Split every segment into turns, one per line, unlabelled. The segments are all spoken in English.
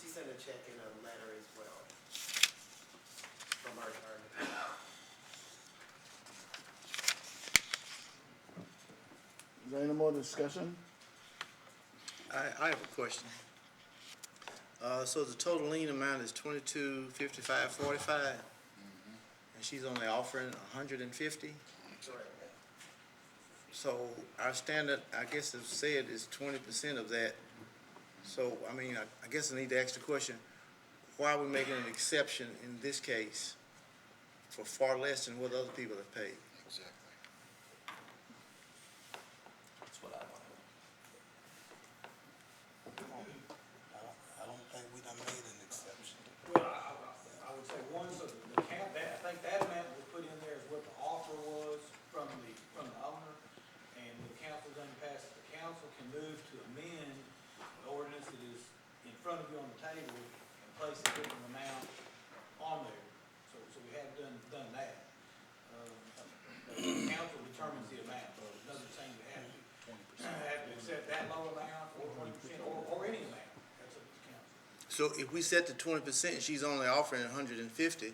check and a letter as well from our attorney.
Is there any more discussion?
I, I have a question. Uh, so the total lien amount is twenty-two fifty-five forty-five? And she's only offering a hundred and fifty?
Correct.
So our standard, I guess it's said is twenty percent of that. So, I mean, I, I guess I need to ask the question, why are we making an exception in this case for far less than what other people have paid?
Exactly.
That's what I want.
I don't think we done made an exception.
Well, I, I- I would say one, so the cap, that, I think that amount was put in there is what the offer was from the, from the owner. And the council doesn't pass, it. the council can move to amend the ordinance that is in front of you on the table and place a different amount on there. So, so we have done, done that. Um, but The council determines the amount, so it doesn't seem to have to, have to accept that low amount or twenty percent or, or any amount. That's up to the council.
So if we set the twenty percent, she's only offering a hundred and fifty,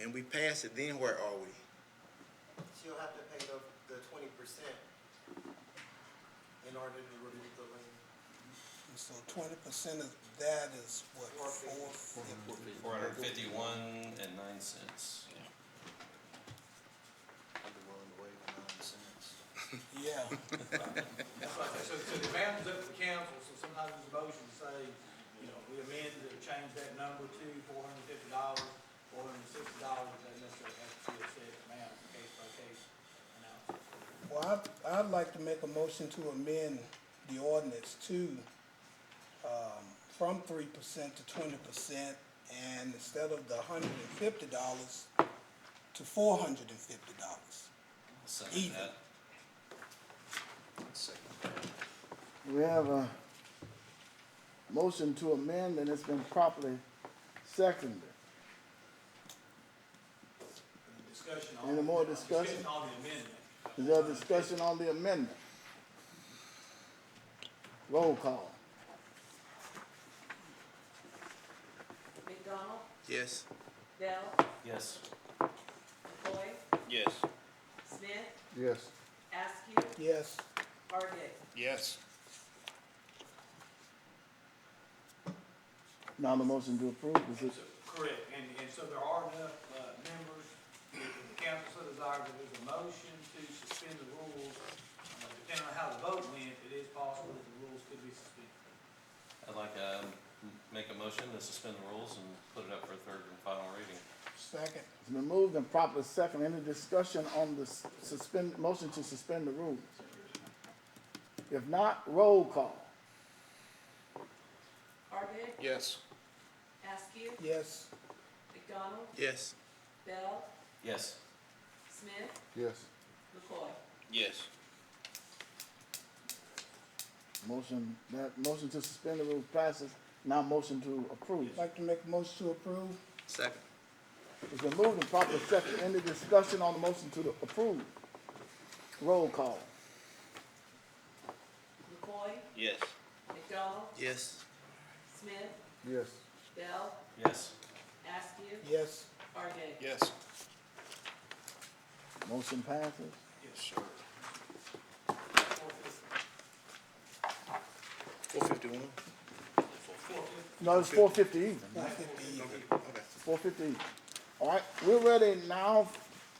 and we pass it, then where are we?
She'll have to pay the, the twenty percent in order to remove the lien.
And so twenty percent of that is what,
Four
four
fifty.
fifty?
Four hundred and fifty-one and nine cents.
I'd be willing to waive nine cents. Yeah,
So, so the amount is up to the council, so sometimes there's a motion to say, you know, we amend or change that number to four hundred and fifty dollars, four hundred and sixty dollars, that necessarily has to be a set amount, case by case analysis.
well, I, I'd like to make a motion to amend the ordinance to, um, from three percent to twenty percent, and instead of the hundred and fifty dollars, to four hundred and fifty dollars.
Second that.
We have a motion to amend and it's been properly seconded.
And the Discussion on.
Any more
uh,
discussion?
on the amendment.
Is there discussion on the amendment? Roll call.
McDonald,
Yes?
Dell,
Yes.
McCoy,
Yes.
Smith,
Yes.
Askew,
Yes,
Argid.
Yes.
Now the motion to approve, is it,
So, Correct, and, and so there are enough, uh, members, if the council so desires, if there's a motion to suspend the rules, uh, depending on how the vote went, it is possible that the rules could be suspended.
I'd like to um, make a motion to suspend the rules and put it up for a third and final reading.
second.
it's been moved and properly seconded. Any discussion on the s- suspend, motion to suspend the rules? If not, roll call.
Argid,
Yes.
Askew,
Yes.
McDonald,
Yes.
Bell,
Yes.
Smith,
Yes.
McCoy.
Yes.
Motion, that motion to suspend the rules passes. Now motion to approve.
Like to make a motion to approve?
Second.
It's been moved and properly seconded. Any discussion on the motion to approve? Roll call.
McCoy,
Yes.
McDonald,
Yes.
Smith,
Yes.
Bell,
Yes.
Askew,
Yes.
Argid.
Yes.
Motion passes.
Yes, sir.
Four fifty-one?
No, it's four fifty even.
One fifty.
Okay, okay.
Four fifty even. All right, we're ready now.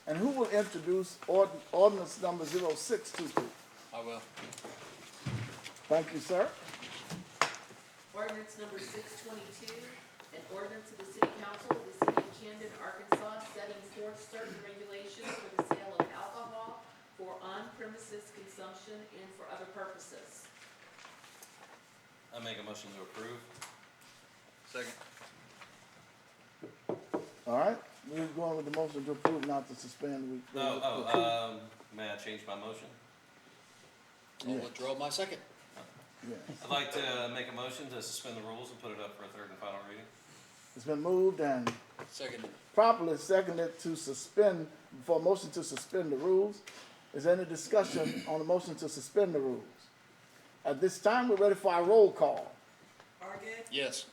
And who will introduce ord- ordinance number zero six two two?
I will.
Thank you, sir.
Ordinance number six twenty-two, an ordinance of the city council of the city of Camden, Arkansas, setting forth certain regulations for the sale of alcohol for on-premises consumption and for other purposes.
I make a motion to approve.
Second.
All right, we're going with the motion to approve, not to suspend. We-
No, oh, um, may I change my motion?
I'll
Yeah.
withdraw my second.
Yeah.
I'd like to make a motion to suspend the rules and put it up for a third and final reading.
It's been moved and
Second.
properly seconded to suspend, for a motion to suspend the rules. Is there any discussion on the motion to suspend the rules? At this time, we're ready for our roll call.
Argid,
Yes.